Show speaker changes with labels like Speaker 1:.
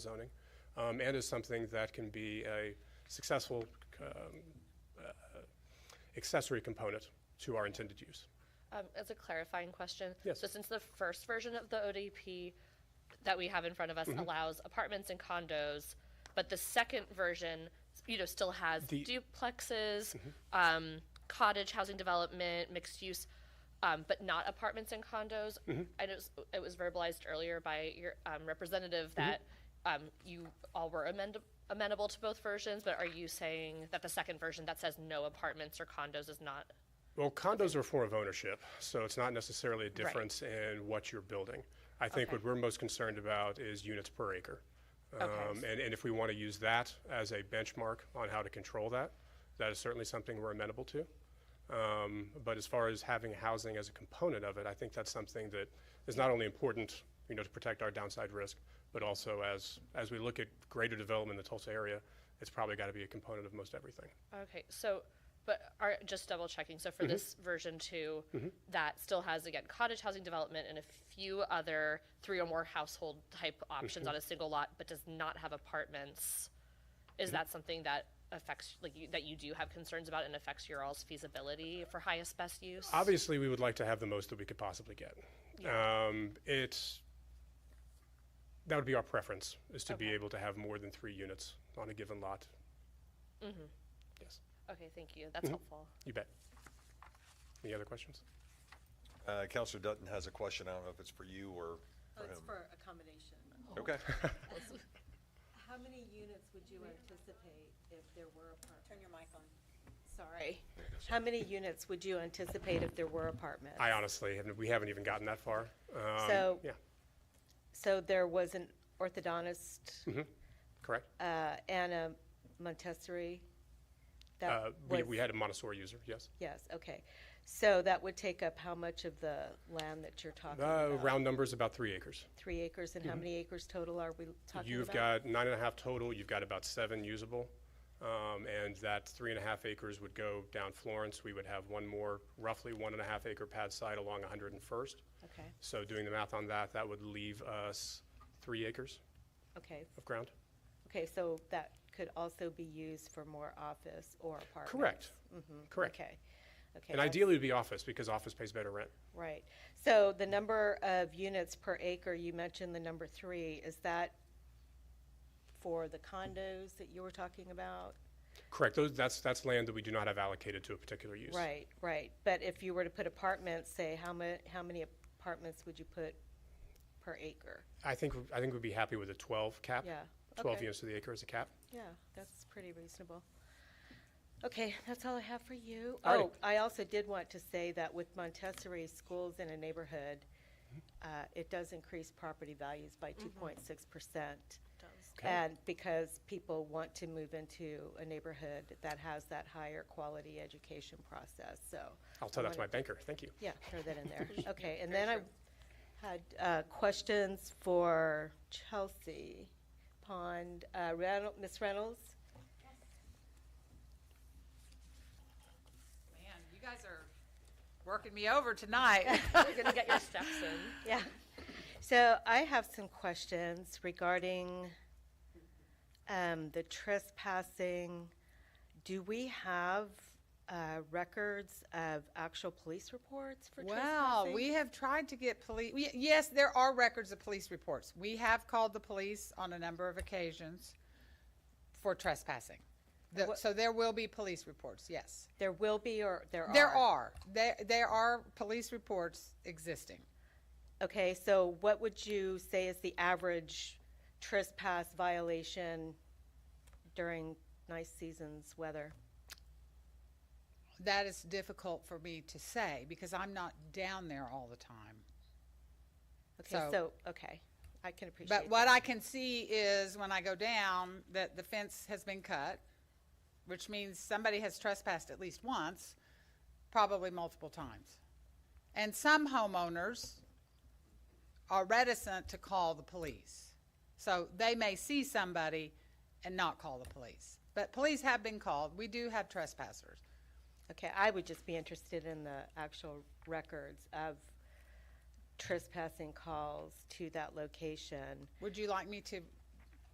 Speaker 1: zoning, um, and is something that can be a successful um, uh, accessory component to our intended use.
Speaker 2: Um, as a clarifying question.
Speaker 1: Yes.
Speaker 2: So since the first version of the ODP that we have in front of us
Speaker 1: Mm-hmm.
Speaker 2: allows apartments and condos, but the second version, you know, still has
Speaker 1: The- Mm-hmm.
Speaker 2: duplexes, um, cottage housing development, mixed use, um, but not apartments and condos.
Speaker 1: Mm-hmm.
Speaker 2: I know s- it was verbalized earlier by your um, representative
Speaker 1: Mm-hmm.
Speaker 2: that um, you all were amend- amenable to both versions, but are you saying that the second version that says no apartments or condos is not
Speaker 1: Well, condos are a form of ownership, so it's not necessarily a difference in what you're building. I think
Speaker 2: Okay.
Speaker 1: what we're most concerned about is units per acre. Um, And, and if we want to use that as a benchmark on how to control that, that is certainly something we're amenable to. Um, But as far as having housing as a component of it, I think that's something that is not only important, you know, to protect our downside risk, but also as, as we look at greater development in the Tulsa area, it's probably got to be a component of most everything.
Speaker 2: Okay, so, but are, just double checking, so for this version two, that still has, again, cottage housing development and a few other three or more household type options on a single lot, but does not have apartments. Is that something that affects, like, you- that you do have concerns about and affects your all's feasibility for highest best use?
Speaker 1: Obviously, we would like to have the most that we could possibly get. Um, it's, that would be our preference, is to be able to have more than three units on a given lot.
Speaker 3: Mm-hmm.
Speaker 1: Yes,
Speaker 2: Okay, thank you, that's helpful.
Speaker 1: you bet. Any other questions?
Speaker 4: Uh, Counselor Dutton has a question. I don't know if it's for you or
Speaker 3: Oh,
Speaker 4: for
Speaker 3: it's
Speaker 4: him.
Speaker 3: for accommodation.
Speaker 4: Okay.
Speaker 3: How many units would you anticipate if there were apartments? Turn your mic on. Sorry. How many units would you anticipate if there were apartments?
Speaker 1: I honestly, haven't- we haven't even gotten that far. Um,
Speaker 3: So-
Speaker 1: Yeah,
Speaker 3: So there was an orthodontist
Speaker 1: Mm-hmm. correct.
Speaker 3: uh, and a Montessori? That
Speaker 1: Uh, we,
Speaker 3: was-
Speaker 1: we had a Montessori user, yes.
Speaker 3: Yes, okay. So that would take up how much of the land that you're talking
Speaker 1: Uh,
Speaker 3: about?
Speaker 1: round numbers, about three acres.
Speaker 3: Three acres, and how many acres total are we talking about?
Speaker 1: You've got nine and a half total, you've got about seven usable. Um, and that three and a half acres would go down Florence. We would have one more, roughly one and a half acre pad site along 101st.
Speaker 3: Okay,
Speaker 1: So doing the math on that, that would leave us three acres
Speaker 3: okay.
Speaker 1: of ground.
Speaker 3: Okay, so that could also be used for more office or apartments?
Speaker 1: Correct. Correct.
Speaker 3: Mm-hmm. Okay, okay.
Speaker 1: And
Speaker 3: that's-
Speaker 1: ideally it'd be office because office pays better rent.
Speaker 3: Right. So the number of units per acre, you mentioned the number three, is that for the condos that you were talking about?
Speaker 1: Correct. Those, that's, that's land that we do not have allocated to a particular use.
Speaker 3: Right, right. But if you were to put apartments, say, how mu, how many apartments would you put per acre?
Speaker 1: I think, I think we'd be happy with a 12 cap.
Speaker 3: Yeah,
Speaker 1: 12
Speaker 3: okay.
Speaker 1: units to the acre is a cap.
Speaker 3: Yeah, that's pretty reasonable. Okay, that's all I have for you.
Speaker 1: All right.
Speaker 3: Oh, I also did want to say that with Montessori schools in a neighborhood,
Speaker 1: Mm-hmm.
Speaker 3: uh, it does increase property values by two point six percent.
Speaker 1: Okay.
Speaker 3: And because people want to move into a neighborhood that has that higher quality education process, so.
Speaker 1: I'll tell
Speaker 3: I
Speaker 1: that to my
Speaker 3: wanted-
Speaker 1: banker. Thank you.
Speaker 3: Yeah, throw that in there. Okay, and then I had uh, questions for Chelsea Pond. Uh, Reynolds, Ms. Reynolds?
Speaker 5: Man, you guys are working me over tonight.
Speaker 2: You're gonna get your steps in.
Speaker 3: Yeah. So I have some questions regarding um, the trespassing. Do we have uh, records of actual police reports for
Speaker 5: Wow,
Speaker 3: trespassing?
Speaker 5: we have tried to get police, yes, there are records of police reports. We have called the police on a number of occasions for trespassing. The- So there will be police reports, yes.
Speaker 3: There will be or there are?
Speaker 5: There are, there, there are police reports existing.
Speaker 3: Okay, so what would you say is the average trespass violation during nice seasons weather?
Speaker 5: That is difficult for me to say because I'm not down there all the time.
Speaker 3: Okay,
Speaker 5: So-
Speaker 3: so, okay, I can appreciate that.
Speaker 5: But what I can see is when I go down, that the fence has been cut, which means somebody has trespassed at least once, probably multiple times. And some homeowners are reticent to call the police. So they may see somebody and not call the police. But police have been called. We do have trespassers.
Speaker 3: Okay, I would just be interested in the actual records of trespassing calls to that location.
Speaker 5: Would you like me to